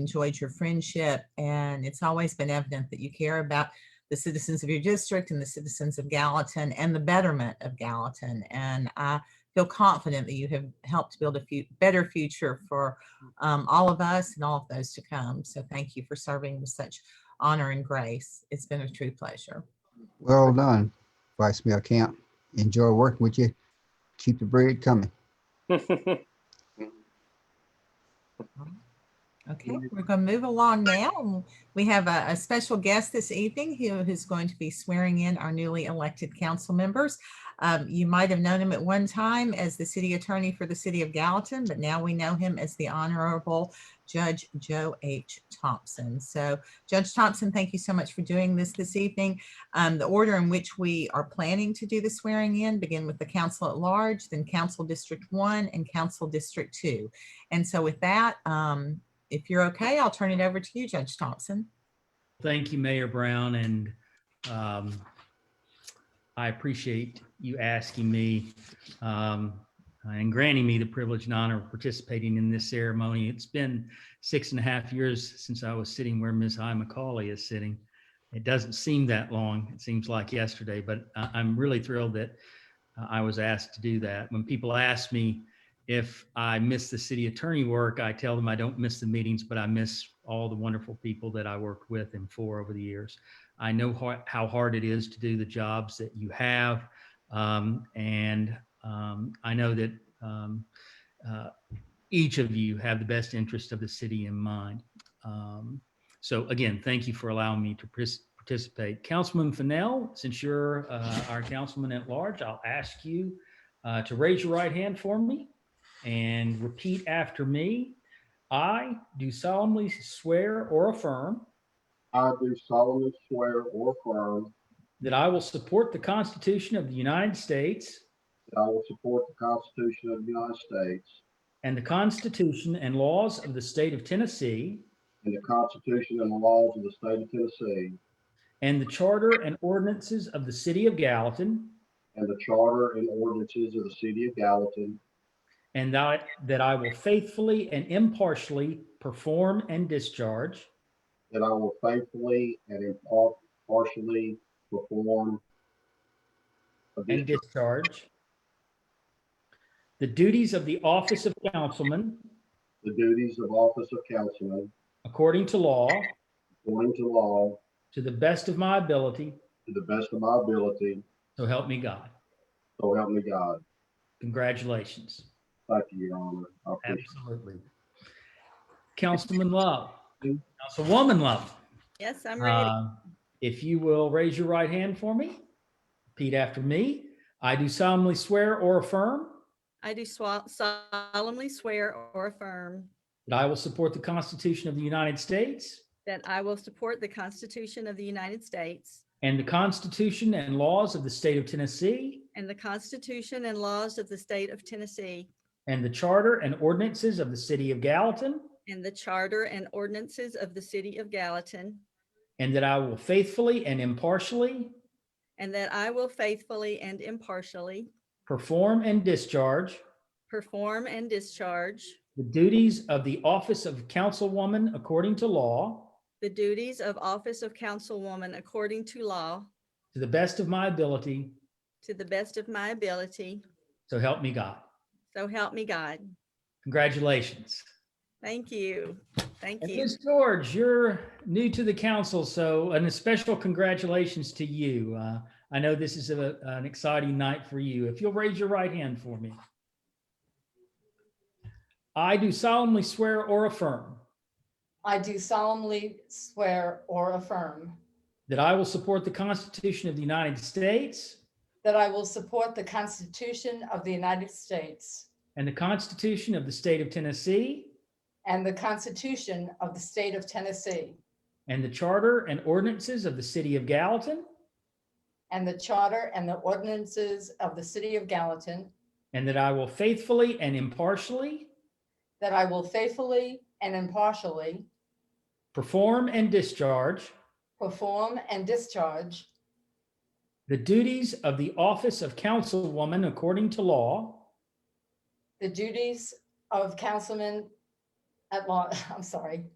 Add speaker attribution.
Speaker 1: enjoyed your friendship, and it's always been evident that you care about the citizens of your district and the citizens of Gallatin and the betterment of Gallatin. And I feel confident that you have helped build a few, better future for um, all of us and all of those to come. So thank you for serving with such honor and grace. It's been a true pleasure.
Speaker 2: Well done, Vice Mayor Camp. Enjoy working with you. Keep the bread coming.
Speaker 1: Okay, we're going to move along now. and We have a, a special guest this evening who is going to be swearing in our newly elected council members. Um, you might have known him at one time as the city attorney for the city of Gallatin, but now we know him as the Honorable Judge Joe H. Thompson. So Judge Thompson, thank you so much for doing this this evening. Um, the order in which we are planning to do the swearing in begin with the council at large, then council district one and council district two. And so with that, um, if you're okay, I'll turn it over to you, Judge Thompson.
Speaker 3: Thank you, Mayor Brown, and um, I appreciate you asking me um, and granting me the privilege and honor of participating in this ceremony. It's been six and a half years since I was sitting where Ms. I McCauley is sitting. It doesn't seem that long. It seems like yesterday, but I- I'm really thrilled that uh, I was asked to do that. When people ask me if I miss the city attorney work, I tell them I don't miss the meetings, but I miss all the wonderful people that I worked with and for over the years. I know how, how hard it is to do the jobs that you have. Um, and um, I know that um, uh, each of you have the best interest of the city in mind. Um, so again, thank you for allowing me to pris- participate. Councilman Fennell, since you're uh, our councilman at large, I'll ask you uh, to raise your right hand for me and repeat after me. I do solemnly swear or affirm
Speaker 4: I do solemnly swear or affirm
Speaker 3: that I will support the Constitution of the United States
Speaker 4: that I will support the Constitution of the United States
Speaker 3: and the Constitution and laws of the state of Tennessee
Speaker 4: and the Constitution and the laws of the state of Tennessee
Speaker 3: and the charter and ordinances of the city of Gallatin,
Speaker 4: and the charter and ordinances of the city of Gallatin,
Speaker 3: and that that I will faithfully and impartially perform and discharge
Speaker 4: that I will faithfully and impartially perform the
Speaker 3: and
Speaker 4: duties-
Speaker 3: discharge the duties of the office of councilman
Speaker 4: the duties of office of councilman
Speaker 3: according to law,
Speaker 4: according to law
Speaker 3: to the best of my ability,
Speaker 4: to the best of my ability,
Speaker 3: so help me God.
Speaker 4: so help me God.
Speaker 3: Congratulations.
Speaker 4: Thank you, Your Honor. I appreciate it.
Speaker 3: Absolutely. Councilman Love, Councilwoman Love,
Speaker 5: Yes, I'm ready.
Speaker 3: uh, if you will raise your right hand for me, repeat after me. I do solemnly swear or affirm
Speaker 5: I do swa- solemnly swear or affirm
Speaker 3: that I will support the Constitution of the United States
Speaker 5: that I will support the Constitution of the United States
Speaker 3: and the Constitution and laws of the state of Tennessee
Speaker 5: and the Constitution and laws of the state of Tennessee
Speaker 3: and the charter and ordinances of the city of Gallatin,
Speaker 5: and the charter and ordinances of the city of Gallatin,
Speaker 3: and that I will faithfully and impartially
Speaker 5: and that I will faithfully and impartially
Speaker 3: perform and discharge
Speaker 5: perform and discharge
Speaker 3: the duties of the office of councilwoman according to law,
Speaker 5: the duties of office of councilwoman according to law,
Speaker 3: to the best of my ability,
Speaker 5: to the best of my ability,
Speaker 3: so help me God.
Speaker 5: so help me God.
Speaker 3: Congratulations.
Speaker 5: Thank you. Thank
Speaker 3: And
Speaker 5: you.
Speaker 3: Ms. George, you're new to the council, so and a special congratulations to you. Uh, I know this is a- an exciting night for you. If you'll raise your right hand for me. I do solemnly swear or affirm
Speaker 6: I do solemnly swear or affirm
Speaker 3: that I will support the Constitution of the United States
Speaker 6: that I will support the Constitution of the United States
Speaker 3: and the Constitution of the State of Tennessee
Speaker 6: and the Constitution of the State of Tennessee
Speaker 3: and the Charter and ordinances of the City of Gallatin
Speaker 6: and the Charter and the ordinances of the City of Gallatin,
Speaker 3: And that I will faithfully and impartially
Speaker 6: that I will faithfully and impartially
Speaker 3: perform and discharge
Speaker 6: perform and discharge
Speaker 3: the duties of the office of councilwoman according to law,
Speaker 6: the duties of councilman at law, I'm sorry,